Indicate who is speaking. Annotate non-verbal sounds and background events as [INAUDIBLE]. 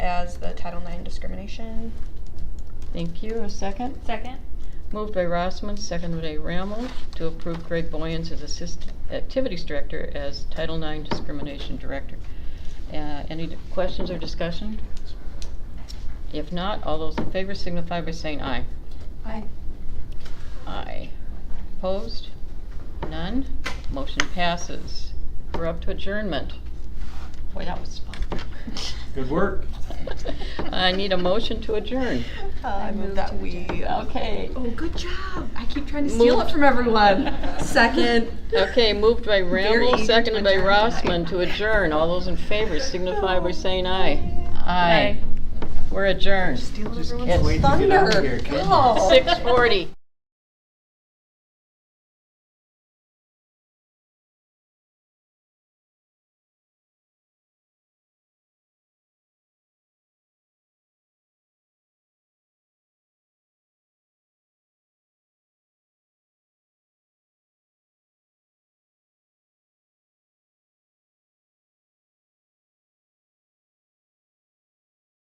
Speaker 1: as the Title IX discrimination.
Speaker 2: Thank you. A second?
Speaker 3: Second?
Speaker 2: Moved by Rossman, seconded by Ramos, to approve Greg Boyens as Assistant Activities Director as Title IX Discrimination Director. Uh, Any d- questions or discussion? If not, all those in favor signify by saying aye.
Speaker 3: Aye.
Speaker 2: Aye. Opposed? None? Motion passes. We're up to adjournment. Boy, that was fun.
Speaker 4: Good work.
Speaker 2: I need a motion to adjourn.
Speaker 3: I move that we.
Speaker 2: Okay.
Speaker 5: Oh, good job. I keep trying to steal it
Speaker 3: [LAUGHS]
Speaker 5: from everyone. Second.
Speaker 2: Okay, moved by
Speaker 5: eager
Speaker 2: Ramble,
Speaker 5: to
Speaker 2: seconded by
Speaker 5: adjourn tonight.
Speaker 2: Rossman to adjourn. All those in favor signify by saying aye. Aye. We're adjourned.
Speaker 5: Steal
Speaker 4: Just can't wait to get out of
Speaker 5: thunder.
Speaker 4: here, can't you?
Speaker 5: Go.
Speaker 2: Six forty.